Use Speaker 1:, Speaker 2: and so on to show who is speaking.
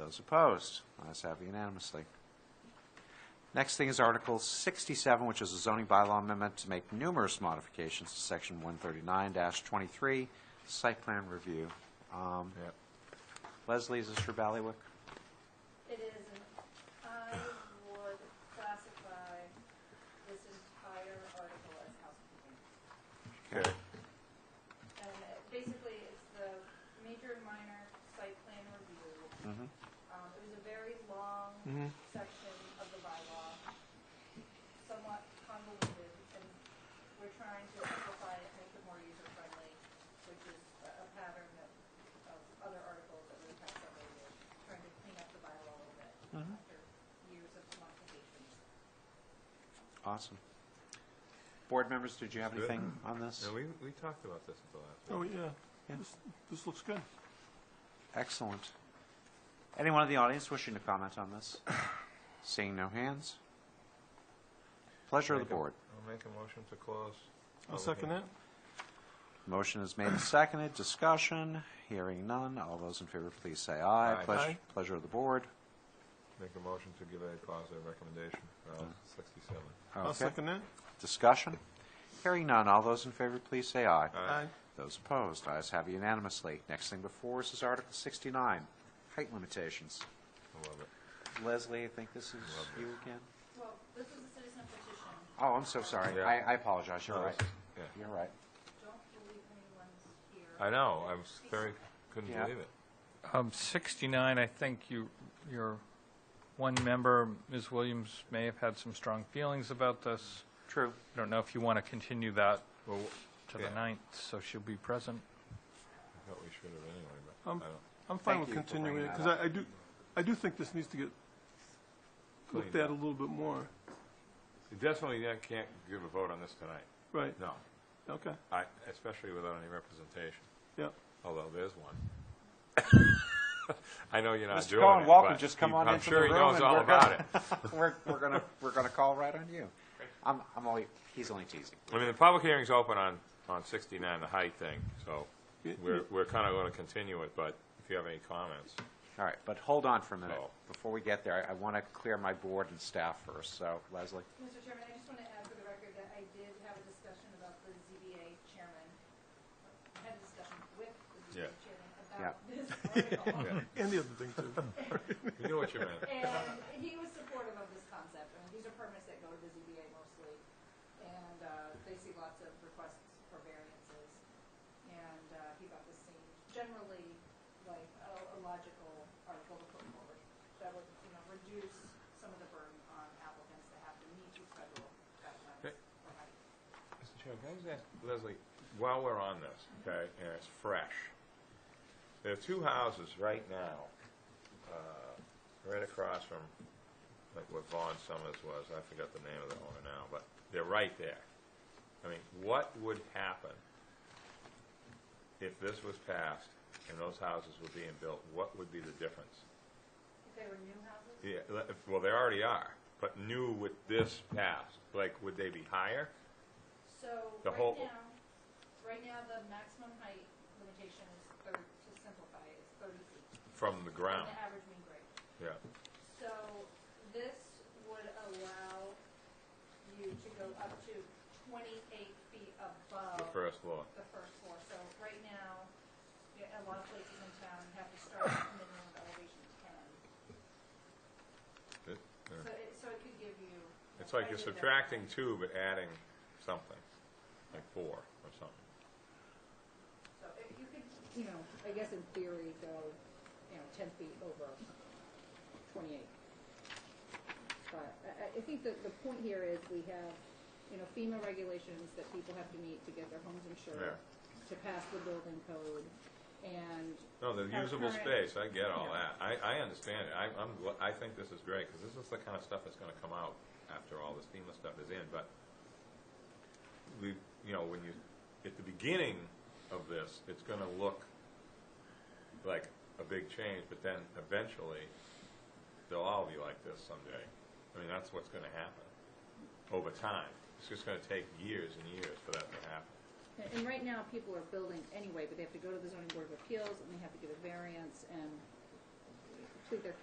Speaker 1: Those opposed? Ayes have unanimously. Next thing is Article 67, which is a zoning bylaw amendment to make numerous modifications to Section 139-23, site plan review. Um,
Speaker 2: Yep.
Speaker 1: Leslie, is this for Ballywick?
Speaker 3: It is, and I would classify this entire article as housekeeping.
Speaker 2: Okay.
Speaker 3: And it- basically, it's the major and minor site plan review.
Speaker 1: Mhm.
Speaker 3: Um, It was a very long section of the bylaw, somewhat convoluted, and we're trying to simplify it, make it more user-friendly, which is a a pattern of of other articles that we've had several years, trying to clean up the bylaw a little bit after years of modifications.
Speaker 1: Awesome. Board members, did you have
Speaker 2: Good.
Speaker 1: anything on this?
Speaker 2: No, we, we talked about this at the last meeting.
Speaker 4: Oh, yeah. This, this looks good.
Speaker 1: Excellent. Anyone in the audience wishing to comment on this? Seeing no hands? Pleasure of the
Speaker 2: Make a-
Speaker 1: board.
Speaker 2: I'll make a motion to close.
Speaker 1: Oh,
Speaker 4: I'll
Speaker 2: public
Speaker 4: second
Speaker 2: hearing.
Speaker 4: that.
Speaker 1: Motion is made and seconded. Discussion, hearing none. All those in favor, please say aye.
Speaker 2: Aye.
Speaker 1: Pleas-
Speaker 4: Aye.
Speaker 1: Pleasure of the board.
Speaker 2: Make a motion to give a positive recommendation for Article sixty-seven.
Speaker 4: I'll
Speaker 1: Okay.
Speaker 4: second that.
Speaker 1: Discussion, hearing none. All those in favor, please say aye.
Speaker 2: Aye.
Speaker 1: Those opposed, ayes have unanimously. Next thing before us is Article 69, height limitations.
Speaker 2: I love it.
Speaker 1: Leslie, I think this is you again?
Speaker 3: Well, this is a citizen petition.
Speaker 1: Oh, I'm so sorry.
Speaker 2: Yeah.
Speaker 1: I I apologize. You're
Speaker 2: No,
Speaker 1: right.
Speaker 2: this is- yeah.
Speaker 1: You're right.
Speaker 3: Don't believe anyone's here.
Speaker 2: I know, I was very, couldn't
Speaker 1: Yeah.
Speaker 2: believe it.
Speaker 5: Um, 69, I think you, your one member, Ms. Williams, may have had some strong feelings about this.
Speaker 1: True.
Speaker 5: I don't know if you want to continue that
Speaker 2: Well,
Speaker 5: to
Speaker 2: yeah,
Speaker 5: the ninth, so she'll be present.
Speaker 2: I thought we should have anyway, but I
Speaker 4: Um,
Speaker 2: don't.
Speaker 4: I'm fine
Speaker 1: Thank
Speaker 4: with
Speaker 1: you for
Speaker 4: continuing it,
Speaker 1: bringing
Speaker 4: because
Speaker 1: that
Speaker 4: I I do, I do think this needs to get looked
Speaker 2: Cleaned
Speaker 4: at
Speaker 2: up.
Speaker 4: a little bit more.
Speaker 2: You Definitely uh, can't give a vote on this tonight.
Speaker 4: Right,
Speaker 2: No,
Speaker 4: okay,
Speaker 2: I, especially without any representation,
Speaker 4: yeah.
Speaker 2: although there's one. I know you're not
Speaker 1: Mr.
Speaker 2: doing it, but.
Speaker 1: Colin Walker, just come
Speaker 2: he-
Speaker 1: on into the room.
Speaker 2: I'm sure he knows
Speaker 1: and
Speaker 2: all
Speaker 1: we're
Speaker 2: about it.
Speaker 1: gonna- We're, we're gonna, we're gonna call right on you. I'm, I'm only, he's only teasing.
Speaker 2: I mean, the public hearing's open on, on 69, the height thing, so
Speaker 4: Yeah,
Speaker 2: we're, we're kind of going to continue it, but if you have any comments,
Speaker 1: All right, but hold on for a minute.
Speaker 2: Oh.
Speaker 1: Before we get there, I, I want to clear my board and staff first, so Leslie.
Speaker 3: Mr. Chairman, I just want to add for the record that I did have a discussion about the ZBA chairman, had a discussion with the ZBA
Speaker 2: Yeah.
Speaker 3: chairman about this article.
Speaker 4: And the other thing, too.
Speaker 2: we knew what you meant.
Speaker 3: And he was supportive of this concept, and these are permits that go to the ZBA mostly, and uh, they see lots of requests for variances. And uh, he thought this seemed generally like a a logical article to put forward that would, you know, reduce some of the burden on applicants that have to meet these federal guidelines.
Speaker 2: Okay.
Speaker 3: for height.
Speaker 2: Mr. Chairman, can I just ask Leslie, while we're on this, okay, and it's fresh, there are two houses right now, uh, right across from, like where Vaughn Summers was, I forgot the name of the owner now, but they're right there. I mean, what would happen if this was passed and those houses were being built? What would be the difference?
Speaker 3: If they were new houses,
Speaker 2: Yeah, le- if- well, they already are, but new with this passed, like, would they be higher?
Speaker 3: so
Speaker 2: The
Speaker 3: right
Speaker 2: whole-
Speaker 3: now, right now, the maximum height limitation is thirty, to simplify, it, is thirty feet.
Speaker 2: From the
Speaker 3: And
Speaker 2: ground,
Speaker 3: the average mean grade.
Speaker 2: yeah.
Speaker 3: So this would allow you to go up to twenty-eight feet
Speaker 2: the
Speaker 3: above
Speaker 2: first floor.
Speaker 3: the first floor. So right now, yeah, a lot of places in town have to start at minimum elevation ten.
Speaker 2: It-
Speaker 3: So
Speaker 2: yeah.
Speaker 3: it, so it could give you.
Speaker 2: It's like you're subtracting two, but adding something, like four or something.
Speaker 3: So if you could, you know, I guess in theory, go, you know, ten feet over twenty-eight. But I, I- I think that the point here is we have, you know, FEMA regulations that people have to meet to get their homes insured, to pass the building code, and.
Speaker 2: No, the
Speaker 3: our
Speaker 2: usable
Speaker 3: current-
Speaker 2: space, I get all that. I, I understand it. I, I'm, gl- I think this is great, because this is the kind of stuff that's gonna come out after all this FEMA stuff is in, but we, you know, when you, at the beginning of this, it's gonna look like a big change, but then eventually, they'll all be like this someday. I mean, that's what's gonna happen over time. It's just gonna take years and years for that to happen.
Speaker 6: And- And right now, people are building anyway, but they have to go to the zoning board of appeals, and they have to get a variance and complete their